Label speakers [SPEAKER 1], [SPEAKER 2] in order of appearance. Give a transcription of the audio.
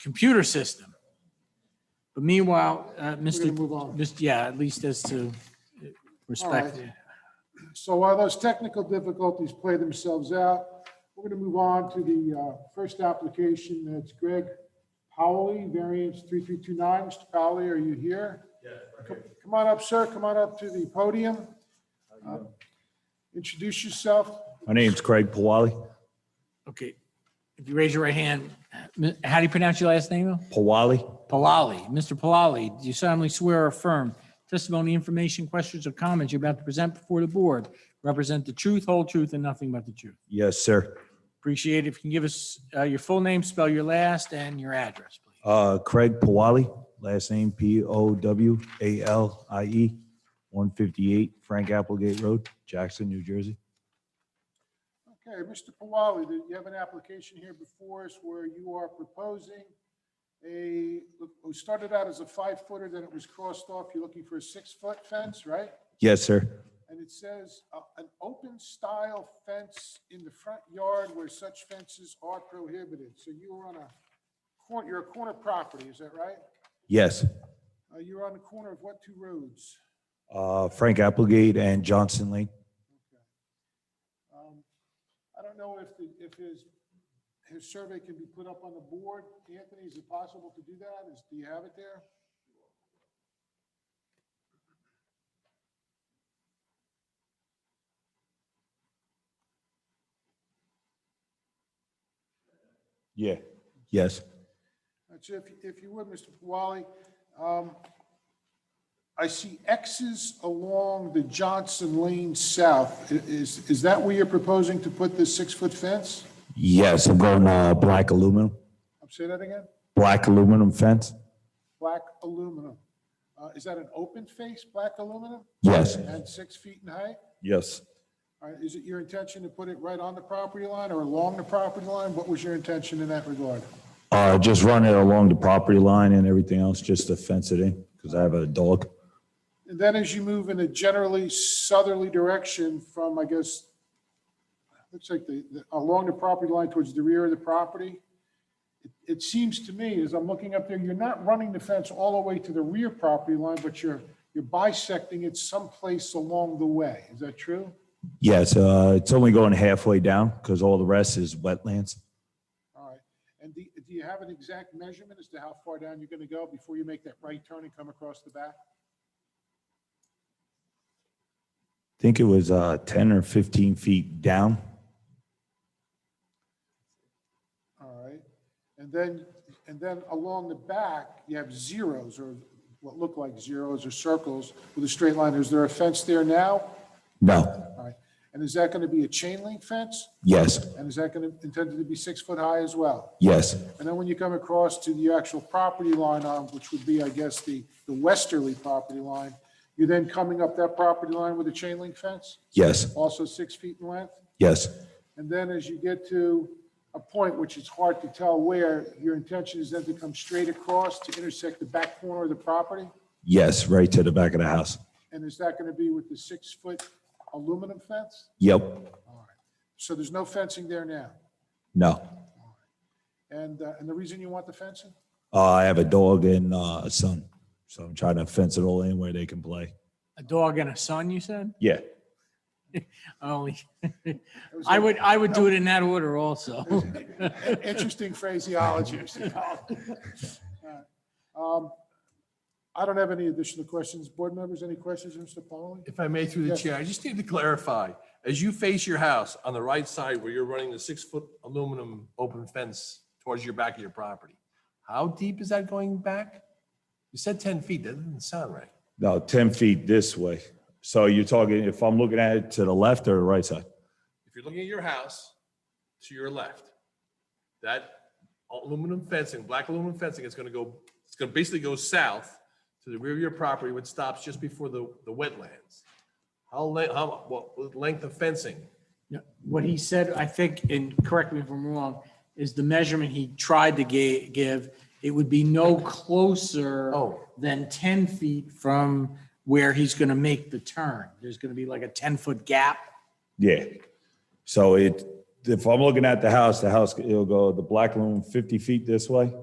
[SPEAKER 1] computer system. But meanwhile, uh,
[SPEAKER 2] We're gonna
[SPEAKER 1] Mr.
[SPEAKER 2] move on.
[SPEAKER 1] Mr. Yeah, at least as to uh, respect.
[SPEAKER 2] So while those technical difficulties play themselves out, we're going to move on to the uh, first application. That's Greg Powley, variance 3329. Mr. Powley, are you here? Yes. Come on up, sir. Come on up to the podium. Uh, Introduce yourself.
[SPEAKER 3] My name's Craig Pawali.
[SPEAKER 1] Okay, if you raise your right hand, mi- how do you pronounce your last name? though?
[SPEAKER 3] Pawali?
[SPEAKER 1] Palali, Mr. Palali, do you solemnly swear or affirm testimony, information, questions, or comments you're about to present before the board represent the truth, whole truth, and nothing but the truth?
[SPEAKER 3] Yes, sir.
[SPEAKER 1] Appreciate it if you can give us uh, your full name, spell your last, and your address, please.
[SPEAKER 3] Uh, Craig Pawali, last name P O W A L I E, 158 Frank Applegate Road, Jackson, New Jersey.
[SPEAKER 2] Okay, Mr. Pawali, that you have an application here before us where you are proposing a, it started out as a five footer, then it was crossed off. You're looking for a six foot fence, right?
[SPEAKER 3] Yes, sir.
[SPEAKER 2] And it says, uh, "An open style fence in the front yard where such fences are prohibited." So you were on a, cor- you're a corner property, is that right?
[SPEAKER 3] Yes.
[SPEAKER 2] Uh, You're on the corner of what two roads?
[SPEAKER 3] Uh, Frank Applegate and Johnson Lane.
[SPEAKER 2] Um, I don't know if, the- if his, his survey can be put up on the board. Anthony, is it possible to do that? Is, do you have it there?
[SPEAKER 3] Yeah. Yes.
[SPEAKER 2] That's if, if you would, Mr. Pawali. um, I see X's along the Johnson Lane South. I- Is, is that where you're proposing to put this six-foot fence?
[SPEAKER 3] Yes, I'm going, uh, black aluminum,
[SPEAKER 2] Um, Say that again?
[SPEAKER 3] black aluminum fence.
[SPEAKER 2] Black aluminum. Uh, Is that an open face, black aluminum,
[SPEAKER 3] Yes.
[SPEAKER 2] and six feet in height?
[SPEAKER 3] Yes.
[SPEAKER 2] All right, Is it your intention to put it right on the property line or along the property line? What was your intention in that regard?
[SPEAKER 3] Uh, just run it along the property line and everything else, just to fence it in, because I have a dog.
[SPEAKER 2] And then as you move in a generally southerly direction from, I guess, looks like the, the- along the property line towards the rear of the property, it- it seems to me, as I'm looking up there, you're not running the fence all the way to the rear property line, but you're, you're bisecting it someplace along the way. Is that true?
[SPEAKER 3] Yes, uh, it's only going halfway down because all the rest is wetlands.
[SPEAKER 2] All right. And do, do you have an exact measurement as to how far down you're going to go before you make that right turn and come across the back?
[SPEAKER 3] I think it was uh, 10 or 15 feet down.
[SPEAKER 2] All right. And then, and then along the back, you have zeros or what look like zeros or circles with a straight line. Is there a fence there now?
[SPEAKER 3] No,
[SPEAKER 2] All right. And is that going to be a chain link fence?
[SPEAKER 3] yes,
[SPEAKER 2] And is that going to, intended to be six foot high as well?
[SPEAKER 3] yes,
[SPEAKER 2] And then when you come across to the actual property line on, which would be, I guess, the, the westerly property line, you're then coming up that property line with a chain link fence,
[SPEAKER 3] yes,
[SPEAKER 2] also six feet in length?
[SPEAKER 3] yes,
[SPEAKER 2] And then as you get to a point which it's hard to tell where, your intention is then to come straight across to intersect the back corner of the property?
[SPEAKER 3] yes, right to the back of the house.
[SPEAKER 2] And is that going to be with the six-foot aluminum fence?
[SPEAKER 3] Yep,
[SPEAKER 2] So there's no fencing there now?
[SPEAKER 3] no.
[SPEAKER 2] And, uh, and the reason you want the fencing?
[SPEAKER 3] Uh, I have a dog and uh, a son, so I'm trying to fence it all in where they can play.
[SPEAKER 1] A dog and a son, you said?
[SPEAKER 3] Yeah.
[SPEAKER 1] Only,
[SPEAKER 2] It was
[SPEAKER 1] I
[SPEAKER 2] a-
[SPEAKER 1] would, I would do it in that order also.
[SPEAKER 2] Interesting phraseology. Mr. Powell. All right. Um, I don't have any additional questions. Board members, any questions, Mr. Pauling?
[SPEAKER 4] If I may, through the
[SPEAKER 2] Yes.
[SPEAKER 4] chair, I just need to clarify, as you face your house on the right side where you're running the six-foot aluminum open fence towards your back of your property, how deep is that going back? You said 10 feet, that doesn't sound right.
[SPEAKER 3] No, 10 feet this way. So you're talking, if I'm looking at it to the left or the right side?
[SPEAKER 4] If you're looking at your house to your left, that aluminum fencing, black aluminum fencing is going to go, it's going to basically go south to the rear of your property, which stops just before the, the wetlands. How, le- how, what length of fencing?
[SPEAKER 1] No, What he said, I think, and correct me if I'm wrong, is the measurement he tried to ga- give, it would be no closer
[SPEAKER 4] Oh.
[SPEAKER 1] than 10 feet from where he's going to make the turn. There's going to be like a 10-foot gap.
[SPEAKER 3] Yeah. So it, if I'm looking at the house, the house, it'll go the black loom 50 feet this way